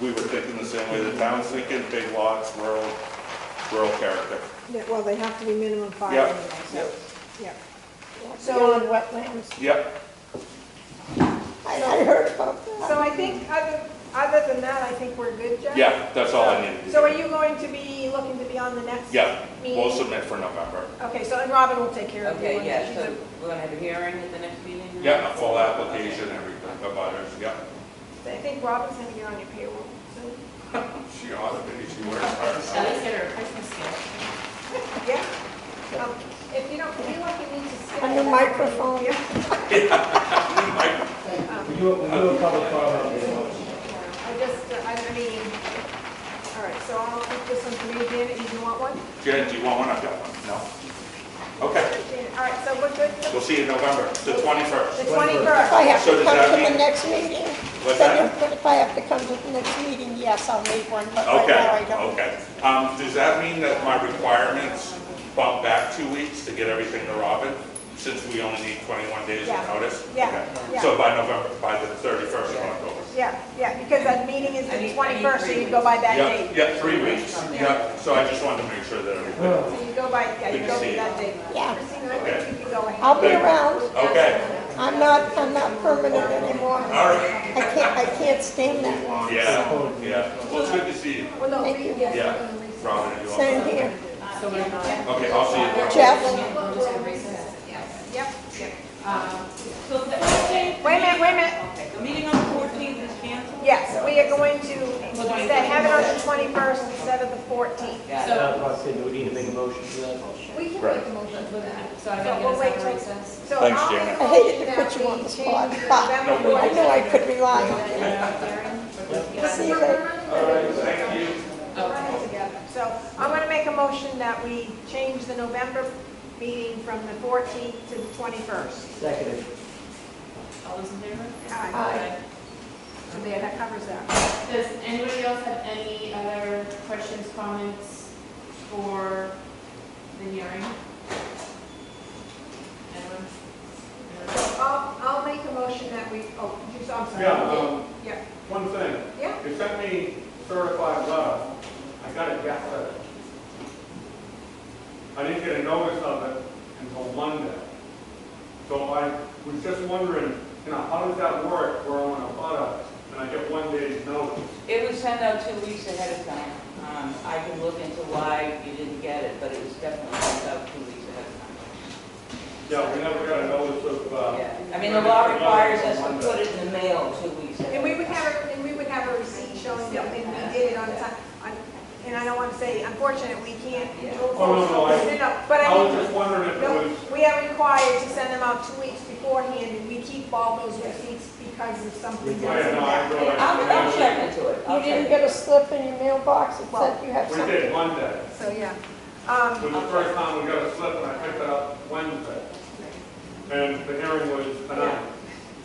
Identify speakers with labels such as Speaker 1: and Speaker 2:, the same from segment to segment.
Speaker 1: we were thinking the same way the town's thinking, big lots, rural, rural character.
Speaker 2: Yeah, Well, they have to be minimum five
Speaker 1: Yeah,
Speaker 2: anyway, so, yeah.
Speaker 3: So-
Speaker 2: So on wetlands.
Speaker 1: Yep,
Speaker 3: I not heard about
Speaker 2: So I think, other, other than that, I think we're good, Jeff?
Speaker 1: yeah, that's all I needed. to
Speaker 2: So are
Speaker 1: do.
Speaker 2: you going to be looking to be on the next
Speaker 1: Yeah,
Speaker 2: meeting?
Speaker 1: we'll submit for November.
Speaker 2: Okay, so, and Robin will take care of you.
Speaker 4: Okay, yeah,
Speaker 2: She's
Speaker 4: so
Speaker 2: a-
Speaker 4: we're gonna have a hearing at the next meeting?
Speaker 1: Yeah, a full application, everything, the butters, yeah.
Speaker 2: I think Robin's gonna be on your payroll, so,
Speaker 1: She ought to be, she wears her.
Speaker 4: least get her a Christmas gift.
Speaker 2: yeah. Um, If you don't feel like you need to skip.
Speaker 3: On the microphone.
Speaker 2: Yeah.
Speaker 1: Like,
Speaker 5: We do, we do a public comment. you know.
Speaker 2: um, I just, uh, I I mean, all right, so I'll put this one for you, Janet, you do want one?
Speaker 1: Jen, do you want one? I've got one. No? Okay,
Speaker 2: Janet, All right, so we're good,
Speaker 1: we'll
Speaker 2: for
Speaker 1: see you in November, the
Speaker 2: the
Speaker 1: twenty-first.
Speaker 3: If I
Speaker 2: 21st.
Speaker 3: have
Speaker 1: So
Speaker 3: to
Speaker 1: does
Speaker 3: come
Speaker 1: that
Speaker 3: to
Speaker 1: mean-
Speaker 3: the next meeting,
Speaker 1: What's
Speaker 3: then
Speaker 1: that?
Speaker 3: if if I have to come to the next meeting, yes, I'll make one, but right now I
Speaker 1: Okay,
Speaker 3: don't.
Speaker 1: okay. Um, does that mean that my requirements bump back two weeks to get everything to Robin? Since we only need twenty-one days of
Speaker 2: Yeah.
Speaker 1: notice?
Speaker 2: Yeah.
Speaker 1: Okay.
Speaker 2: Yeah.
Speaker 1: So by November, by the thirty-first of October?
Speaker 2: Yeah, yeah, because that meeting is
Speaker 4: I need-
Speaker 2: the
Speaker 4: I need
Speaker 2: 21st, so you
Speaker 4: three
Speaker 2: go by that
Speaker 1: Yeah,
Speaker 2: date.
Speaker 1: yeah, three weeks. Yeah, so I just wanted to make sure that everything.
Speaker 2: So you go by, yeah, you
Speaker 1: Good to
Speaker 2: go
Speaker 1: see
Speaker 2: by
Speaker 1: you.
Speaker 2: that date.
Speaker 3: Yeah.
Speaker 2: Christina, I think you can go ahead.
Speaker 3: I'll be
Speaker 1: Thank you.
Speaker 3: around,
Speaker 1: Okay,
Speaker 3: I'm not, I'm not permanent anymore.
Speaker 1: all
Speaker 3: I
Speaker 1: right.
Speaker 3: can't, I can't stand that long.
Speaker 1: Yeah, yeah. Well, it's good to see you.
Speaker 2: Well, no,
Speaker 3: Thank you.
Speaker 1: Yeah, Robin, you also.
Speaker 3: Same here.
Speaker 1: Okay, I'll see you.
Speaker 3: Jeff,
Speaker 2: Yep.
Speaker 4: Uh, So the fourteenth?
Speaker 2: Wait a minute, wait a minute.
Speaker 4: Okay, the meeting on the fourteenth is canceled?
Speaker 2: Yes, we are going to, instead, have it on the 21st instead of the 14th.
Speaker 4: Got it.
Speaker 5: That's why I said, do we need to make a motion for that?
Speaker 6: We can
Speaker 1: Right.
Speaker 6: make a motion for that.
Speaker 4: So I
Speaker 2: So
Speaker 4: gotta
Speaker 2: we'll
Speaker 4: get
Speaker 2: wait
Speaker 4: us
Speaker 2: till-
Speaker 4: on recess.
Speaker 2: So
Speaker 1: Thanks,
Speaker 2: I'll make a
Speaker 1: Janet.
Speaker 3: I hated to
Speaker 6: That
Speaker 3: put you
Speaker 6: we
Speaker 3: on the
Speaker 6: change
Speaker 3: spot,
Speaker 6: the
Speaker 3: but
Speaker 2: November
Speaker 3: I
Speaker 2: fourth.
Speaker 3: know I could rely on you. See you later.
Speaker 1: All right, thank you.
Speaker 2: Run it together. So I'm going to make a motion that we change the November meeting from the 14th to the 21st.
Speaker 5: Seconded.
Speaker 4: All those in favor?
Speaker 2: Aye.
Speaker 6: Aye.
Speaker 2: So there, that covers that.
Speaker 6: Does anybody else have any other questions, comments for the hearing? Anyone? Anyone?
Speaker 2: I'll, I'll make a motion that we, oh, you, I'm sorry.
Speaker 7: Yeah, um,
Speaker 2: Yeah,
Speaker 7: one thing,
Speaker 2: yeah,
Speaker 7: you sent me certified letter, I got it yesterday. I didn't get a notice of it until Monday. So I was just wondering, you know, how does that work, where I'm on a butter, and I get one day's notice?
Speaker 4: It was sent out two weeks ahead of time. Um, I can look into why you didn't get it, but it was definitely sent out two weeks ahead of time.
Speaker 7: Yeah, we never got a notice of, uh,
Speaker 4: Yeah, I mean, the law requires us to put it in the mail two weeks ahead.
Speaker 2: and we would have, a- and we would have a receipt showing that we we did it on time. On- And I don't want to say, unfortunately, we can't.
Speaker 7: Oh, no, no, I-
Speaker 2: But I
Speaker 7: I
Speaker 2: mean.
Speaker 7: was just wondering if it
Speaker 2: No,
Speaker 7: was,
Speaker 2: We are required to send them out two weeks beforehand, and we keep all those receipts because of something
Speaker 7: I
Speaker 2: that's
Speaker 7: didn't know, I
Speaker 2: happening.
Speaker 7: realized.
Speaker 4: I'll, I'll check into it.
Speaker 3: You
Speaker 4: I'll
Speaker 3: didn't
Speaker 4: check.
Speaker 3: get a slip in your mailbox that
Speaker 2: Well-
Speaker 3: said you have
Speaker 7: We
Speaker 3: something?
Speaker 7: did, Monday.
Speaker 2: So, yeah.
Speaker 7: It
Speaker 2: Um,
Speaker 7: was the first time we got a slip, and I picked it up Wednesday. And the hearing was tonight.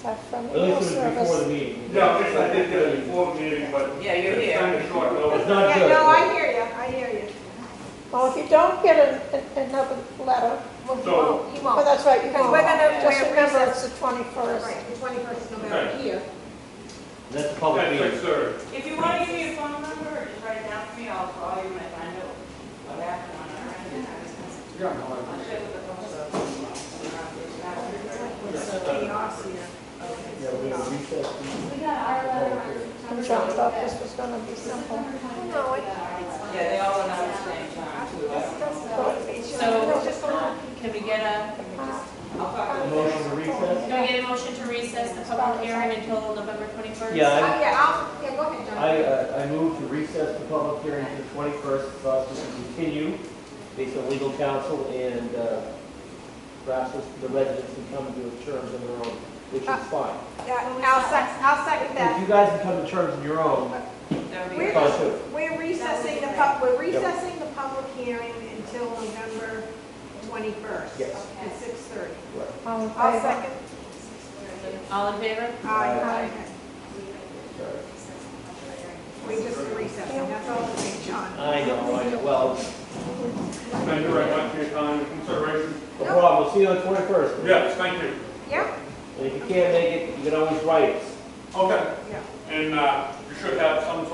Speaker 3: That's from the
Speaker 5: At least
Speaker 3: mail
Speaker 5: it was before the
Speaker 3: service.
Speaker 5: meeting.
Speaker 7: Yeah, I guess I did get it before the meeting, but.
Speaker 4: Yeah, you're
Speaker 7: It's kind
Speaker 4: here.
Speaker 7: of short
Speaker 5: It's
Speaker 7: notice.
Speaker 5: not
Speaker 2: Yeah,
Speaker 5: good.
Speaker 2: no, I hear you, I hear you.
Speaker 3: Well, if you don't get a- a- another letter,
Speaker 2: Well, he
Speaker 7: So-
Speaker 2: won't, he
Speaker 3: well,
Speaker 2: won't.
Speaker 3: that's right, you
Speaker 2: Because we're
Speaker 3: won't.
Speaker 2: gonna,
Speaker 3: Just
Speaker 2: we're
Speaker 3: remember,
Speaker 2: recessed.
Speaker 3: it's the 21st.
Speaker 2: Right, the twenty-first of November here.
Speaker 5: That's a public
Speaker 7: That's
Speaker 5: meeting.
Speaker 7: absurd.
Speaker 4: If you want to give me a phone number, or just write it down for me, I'll call you when I find out what happened on our end.
Speaker 7: Yeah, no, I-
Speaker 4: I'll check with the phone.
Speaker 2: Chaos here.
Speaker 5: Yeah, we have a recess.
Speaker 6: We got our letter on September.
Speaker 3: And John thought this was gonna be simple.
Speaker 2: No, it-
Speaker 4: Yeah, they all went out at the same time, too.
Speaker 6: So, can we get a,
Speaker 4: I'll talk
Speaker 5: A
Speaker 4: to
Speaker 5: Motion to recess.
Speaker 6: can we get a motion to recess the public hearing until November 21st?
Speaker 2: Uh,
Speaker 5: Yeah,
Speaker 2: yeah, I'll, yeah, go ahead, John.
Speaker 5: I, I, uh, I move to recess the public hearing to the twenty-first, for us to continue based on legal counsel and, uh, perhaps the residents can come to terms on their own, which
Speaker 2: Uh,
Speaker 5: is fine.
Speaker 2: Yeah, I'll sec, I'll second
Speaker 5: If
Speaker 2: that.
Speaker 5: you guys can come to terms on your own,
Speaker 4: That'd be
Speaker 2: We're,
Speaker 4: great.
Speaker 5: fine too.
Speaker 2: we're recessing the pub, we're recessing the public hearing until November twenty-first.
Speaker 5: Yes.
Speaker 2: At six thirty.
Speaker 3: All in
Speaker 2: I'll
Speaker 3: favor?
Speaker 2: second.
Speaker 6: All in favor?
Speaker 2: Aye.
Speaker 5: Aye.
Speaker 2: We just recessing, that's all we're doing, John.
Speaker 5: I know, I know, well,
Speaker 7: Thank you very much for your time and consideration.
Speaker 5: no problem, we'll see you on the twenty-first.
Speaker 7: Yes, thank you.
Speaker 2: Yeah?
Speaker 5: And if you can't make it, you can always write us.
Speaker 7: Okay,
Speaker 2: Yeah.
Speaker 7: and uh, you should have some